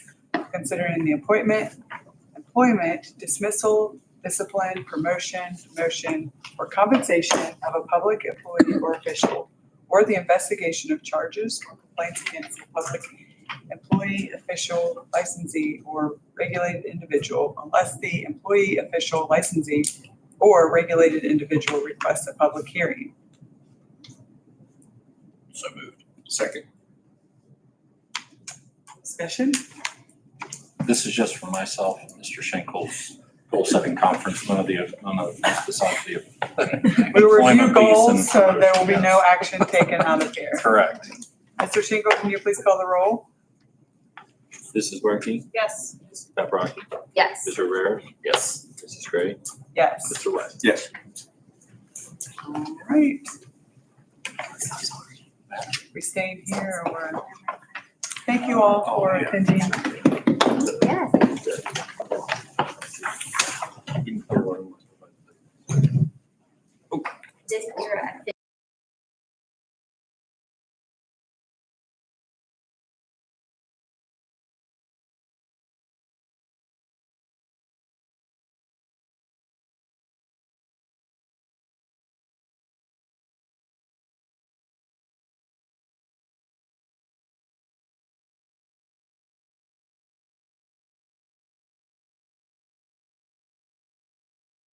considering the appointment, employment, dismissal, discipline, promotion, motion, or compensation of a public employee or official, or the investigation of charges or complaints against a public employee, official, licensee, or regulated individual unless the employee, official, licensee, or regulated individual requests a public hearing. So moved. Second. Discussion? This is just for myself, and Mr. Schenkel's goal setting conference, none of the, none of this besides the. We will review employment piece goals, and so there will be no promotion, action taken out of yes. here. Correct. Mr. Shingle, can you please call the roll? This is Werke, Yes. Mrs. Paprocki, Yes. Mr. Rare, Yes. Mrs. Gray, Yes. Mr. West. Yes. All right. We staying here or we're, thank you all for attending. Yes. You can put one on. Didn't your